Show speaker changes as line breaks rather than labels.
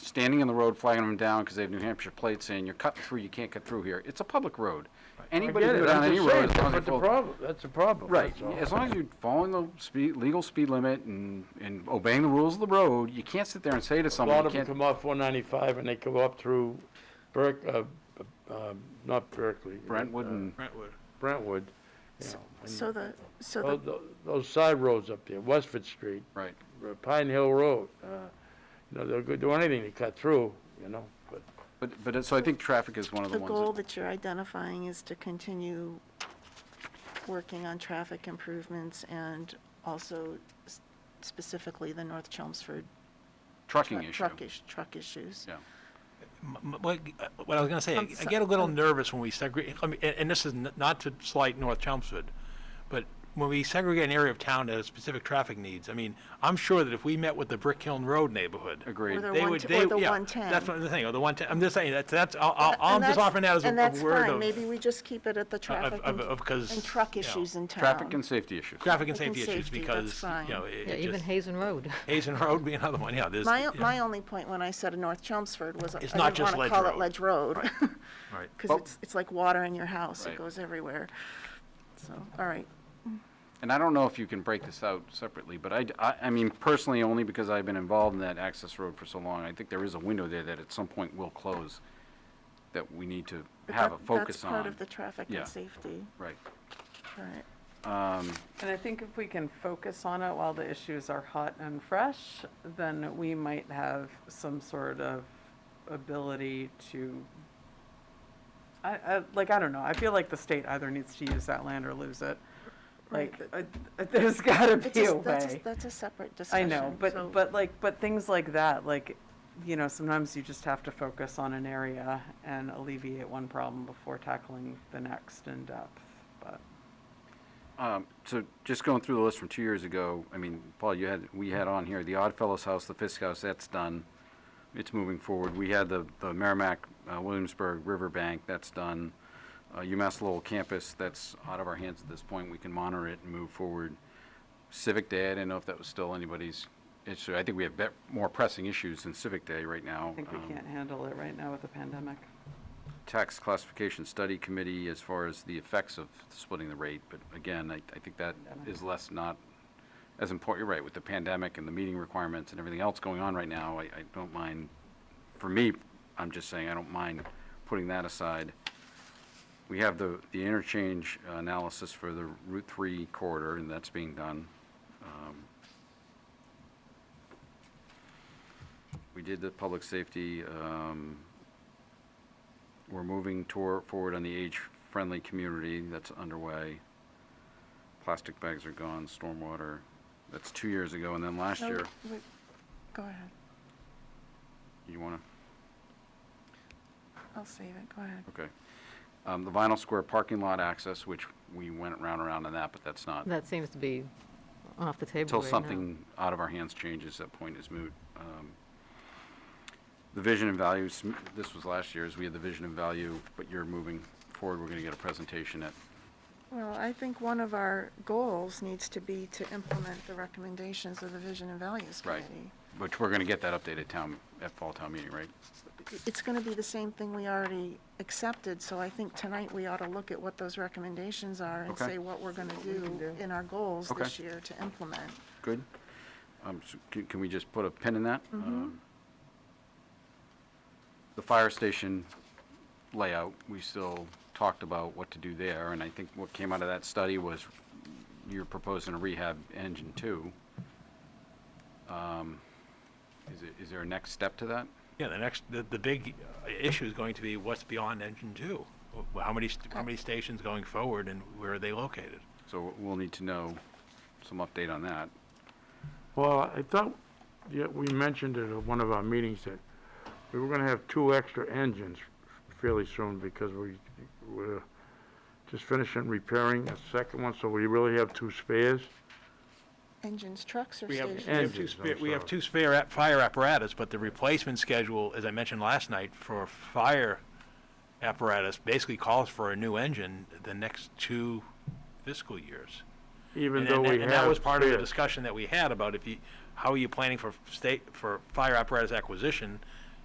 standing in the road, flagging them down because they have New Hampshire plates saying, you're cutting through, you can't cut through here. It's a public road. Anybody can
Forget it,
go down
I'm
any
just
road
saying,
as long as
that's
you
what the
follow.
problem, that's the problem,
Right,
that's all.
as long as you're following the speed, legal speed limit and, and obeying the rules of the road, you can't sit there and say to
A lot
someone, you
of them
can't.
come off one ninety-five and they go up through Berk, uh, uh, not Berkeley.
Brentwood
uh,
and,
Brentwood.
Brentwood, you know, and
So the, so
tho-
the,
tho- Those side roads up there, Westford Street,
right.
uh, Pine Hill Road, uh, you know, they'll go do anything to cut through, you know, but
But, but, it- so I think traffic is one of the
the goal
ones that,
that you're identifying is to continue working on traffic improvements and also s- specifically the North Chelmsford
trucking
tru-
issue.
truck ish, truck issues.
Yeah.
M- m- What uh, what I was going to say,
Some-
I get a little nervous when we segregate, I mean, and and this is n- not to slight North Chelmsford, but when we segregate an area of town that has specific traffic needs, I mean, I'm sure that if we met with the Brick Hill Road neighborhood.
Agreed.
Or the
They
one
would,
t-
they,
or the
yeah,
110.
that's what I'm saying, or the one ten, I'm just saying, that's, that's, I'll- I'll-
And
I'm just
that's-
offering that as a a
And
word of.
that's fine, maybe we just keep it at the traffic
of-
and,
of- 'cause,
and truck
you know,
issues in town.
Traffic and safety issues.
Traffic and
I think
safety issues,
safety, that's
because, you know,
fine.
it
Yeah,
it
even
just,
Hazen Road.
Hazen Road be another one, yeah, there's.
My,
yeah,
my only point when I said North Chelmsford was, I
It's not
didn't
just
wanna
Ledge
call it
Road.
Ledge Road.
Right.
Cause
Well-
it's, it's like water in your house,
Right.
it goes everywhere. So, all right,
And I don't know if you can break this out separately, but I, I, I mean, personally, only because I've been involved in that access road for so long, I think there is a window there that at some point will close, that we need to
But
have a
that-
focus
That's part
on.
of the traffic
Yeah.
and safety,
Right.
all right.
And I think if we can focus on it while the issues are hot and fresh, then we might have some sort of ability to, I, I, like, I don't know, I feel like the state either needs to use that land or lose it. Like, I- I- there's gotta
It's
be
a-
a
That's, a-
way.
that's a separate
I
discussion.
know,
so-
but, but like, but things like that, like, you know, sometimes you just have to focus on an area and alleviate one problem before tackling the next in depth, but.
Um, so just going through the list from two years ago, I mean, Paul, you had, we had on here the Odd Fellows House, the Fisk House, that's done. It's moving forward. We had the, the Merrimack, uh, Williamsburg Riverbank, that's done. Uh, UMass Lowell Campus, that's out of our hands at this point. We can monitor it and move forward. Civic Day, I didn't know if that was still anybody's issue. I think we have bet- more pressing issues than Civic Day right now.
I think we
Um,
can't handle it right now with the pandemic.
tax classification study committee as far as the effects of splitting the rate, but again, I, I think that is less not as important, you're right, with the pandemic and the meeting requirements and everything else going on right now, I, I don't mind, for me, I'm just saying, I don't mind putting that aside. We have the, the interchange analysis for the Route Three corridor, and that's being done. Um, We did the public safety, um, we're moving toward, forward on the age-friendly community that's underway. Plastic bags are gone, stormwater, that's two years ago, and then last
No,
year,
we- Go ahead,
you wanna?
I'll save it, go ahead.
Okay. Um, The vinyl square parking lot access, which we went round and round on that, but that's not,
That seems to be off the table
until
right now.
something out of our hands changes, that point is moot. Um, The vision and values, this was last year's, we had the vision and value, but you're moving forward, we're gonna get a presentation at,
Well, I think one of our goals needs to be to implement the recommendations of the Vision and Values
right?
Committee.
Which we're gonna get that updated town, at fall town meeting, right?
It's gonna be the same thing we already accepted, so I think tonight we ought to look at what those recommendations are and
Okay.
say what we're gonna do in our goals
Okay.
this year to implement.
Good. Um, so can, can we just put a pin in that? Um, The fire station layout, we still talked about what to do there, and I think what came out of that study was you're proposing a rehab engine two. Um, Is it, is there a next step to that?
Yeah, the next, the, the big uh, issue is going to be what's beyond engine two? Wh- How many, st- how many stations going forward and where are they located?
So we'll need to know some update on that.
Well, I thought, yeah, we mentioned it at one of our meetings that we were gonna have two extra engines fairly soon because we, we're just finishing repairing a second one, so we really have two spares.
Engines, trucks, or
We have, we
stations?
have two
Engines,
spare,
I'm
we have
sorry.
two spare ap- fire apparatus, but the replacement schedule, as I mentioned last night, for fire apparatus basically calls for a new engine the next two fiscal years.
Even
And-
though
and-
we have.
And that was part of the
spares.
discussion that we had about if you, how are you planning for state, for fire apparatus acquisition